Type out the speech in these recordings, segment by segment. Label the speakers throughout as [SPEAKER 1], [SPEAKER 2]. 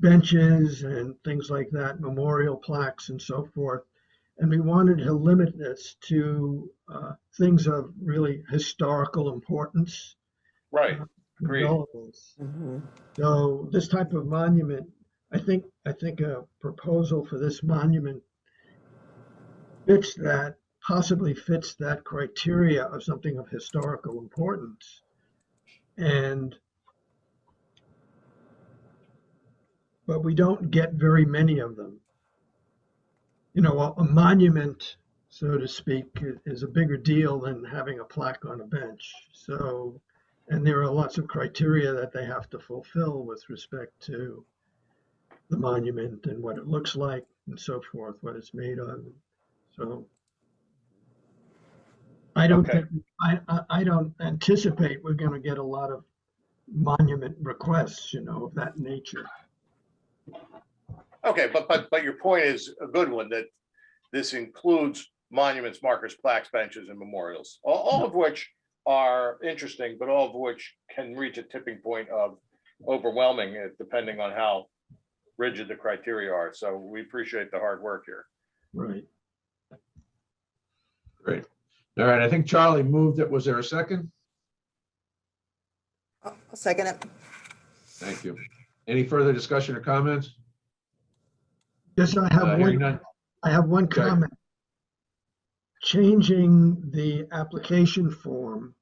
[SPEAKER 1] benches and things like that, memorial plaques and so forth. And we wanted to limit this to uh, things of really historical importance.
[SPEAKER 2] Right,
[SPEAKER 3] Uh-huh.
[SPEAKER 2] Agreed.
[SPEAKER 1] relevance. So this type of monument, I think, I think a proposal for this monument fits that, possibly fits that criteria of something of historical importance. And but we don't get very many of them. You know, a, a monument, so to speak, i- is a bigger deal than having a plaque on a bench. So, and there are lots of criteria that they have to fulfill with respect to the monument and what it looks like and so forth, what it's made of. So, I don't
[SPEAKER 2] Okay.
[SPEAKER 1] think, I, I, I don't anticipate we're going to get a lot of monument requests, you know, of that nature.
[SPEAKER 2] Okay, but, but, but your point is a good one, that this includes monuments, markers, plaques, benches, and memorials, all, all of which are interesting, but all of which can reach a tipping point of overwhelming, eh, depending on how rigid the criteria are. So we appreciate the hard work here.
[SPEAKER 1] Right.
[SPEAKER 4] Great. All right, I think Charlie moved it. Was there a second?
[SPEAKER 5] I'll I'll second it.
[SPEAKER 4] Thank you. Any further discussion or comments?
[SPEAKER 1] Yes, I
[SPEAKER 4] Uh,
[SPEAKER 1] have one,
[SPEAKER 4] hearing none.
[SPEAKER 1] I have one
[SPEAKER 4] Go ahead.
[SPEAKER 1] comment. Changing the application form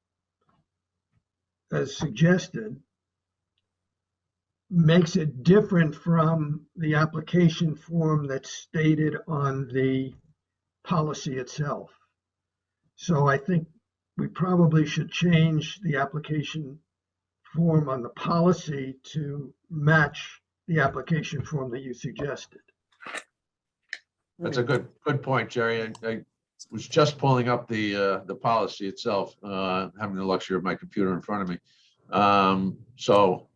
[SPEAKER 1] as suggested makes it different from the application form that's stated on the policy itself. So I think we probably should change the application form on the policy to match the application form that you suggested.
[SPEAKER 4] That's a good, good point, Jerry. I- I was just pulling up the, uh, the policy itself, uh, having the luxury of my computer in front of me. Um, so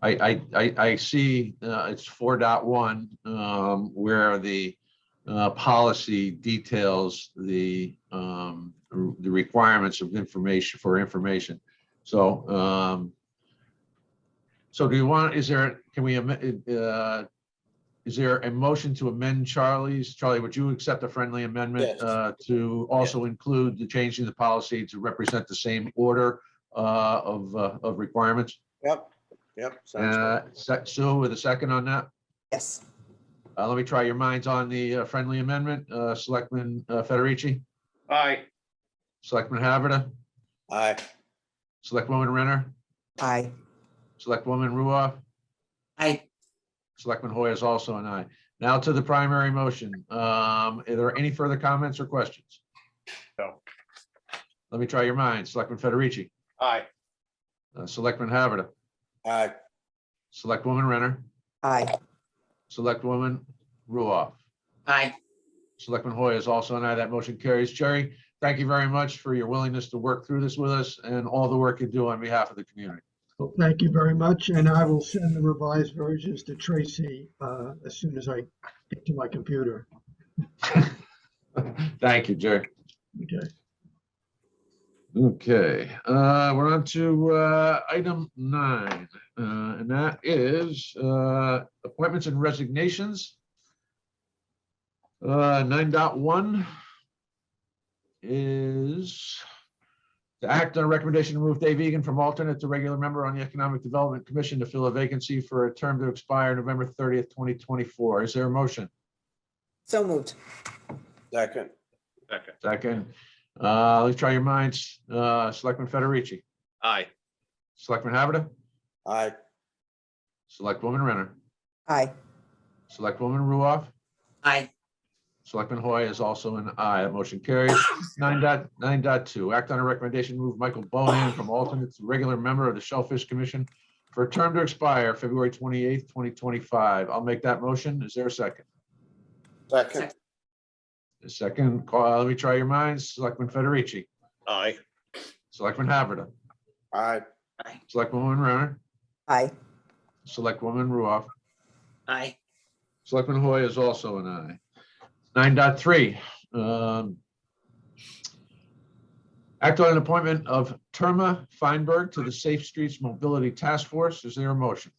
[SPEAKER 4] I, I, I, I see, uh, it's four dot one, um, where the, uh, policy details the, um, the requirements of information, for information. So, um, so do you want, is there, can we, amend- uh, is there a motion to amend Charlie's? Charlie, would you accept a friendly amendment
[SPEAKER 3] Yes.
[SPEAKER 4] uh, to also include the changing the policy to represent the same order uh, of, uh, of requirements?
[SPEAKER 3] Yep, yep. sounds
[SPEAKER 4] Uh, Se- Sue, with a second on that?
[SPEAKER 5] Yes,
[SPEAKER 4] Uh, Let me try your minds on the uh, friendly amendment. Uh, Selectman uh, Federici,
[SPEAKER 2] Aye,
[SPEAKER 4] Selectman Haverda,
[SPEAKER 3] good. Aye,
[SPEAKER 4] Selectwoman Renner,
[SPEAKER 5] aye.
[SPEAKER 4] Selectwoman Ruoff,
[SPEAKER 5] Aye.
[SPEAKER 4] Selectman Hoy is also an aye. Now to the primary motion. Um, Are there any further comments or questions?
[SPEAKER 2] No.
[SPEAKER 4] Let me try your minds. Selectman Federici,
[SPEAKER 2] aye,
[SPEAKER 4] uh, Selectman Haverda,
[SPEAKER 3] aye,
[SPEAKER 4] Selectwoman Renner,
[SPEAKER 5] Aye.
[SPEAKER 4] Selectwoman Ruoff.
[SPEAKER 5] Aye.
[SPEAKER 4] Selectman Hoy is also an aye. That motion carries. Jerry, thank you very much for your willingness to work through this with us and all the work you do on behalf of the community.
[SPEAKER 1] Well, thank you very much, and I will send the revised versions to Tracy uh, as soon as I get to my computer.
[SPEAKER 4] Thank you, Jerry.
[SPEAKER 1] Okay.
[SPEAKER 4] Okay, uh, we're on to, uh, item nine, uh, and that is, uh, appointments and resignations. Uh, nine dot one is to act on a recommendation to move Dave Egan from alternate to regular member on the Economic Development Commission to fill a vacancy for a term to expire November thirtieth, twenty twenty-four. Is there a motion?
[SPEAKER 5] So moved.
[SPEAKER 3] second,
[SPEAKER 2] second,
[SPEAKER 4] Second, uh, let's try your minds. Uh, Selectman Federici,
[SPEAKER 2] aye,
[SPEAKER 4] Selectman Haberda,
[SPEAKER 3] aye,
[SPEAKER 4] Selectwoman Renner,
[SPEAKER 5] Aye.
[SPEAKER 4] Selectwoman Ruoff,
[SPEAKER 5] Aye.
[SPEAKER 4] Selectman Hoy is also an aye. That motion carries. Nine dot, nine dot two, act on a recommendation to move Michael Bohan from alternate to regular member of the Shellfish Commission for a term to expire February twenty-eighth, twenty twenty-five. I'll make that motion. Is there a second?
[SPEAKER 3] second,
[SPEAKER 4] A second, call, let me try your minds. Selectman Federici,
[SPEAKER 2] aye,
[SPEAKER 4] Selectman Haberda,
[SPEAKER 3] aye,
[SPEAKER 4] Selectwoman Renner,
[SPEAKER 5] Aye.
[SPEAKER 4] Selectwoman Ruoff,
[SPEAKER 5] Aye.
[SPEAKER 4] Selectman Hoy is also an aye. Nine dot three. um, Act on an appointment of Terma Feinberg to the Safe Streets Mobility Task Force. Is there a motion?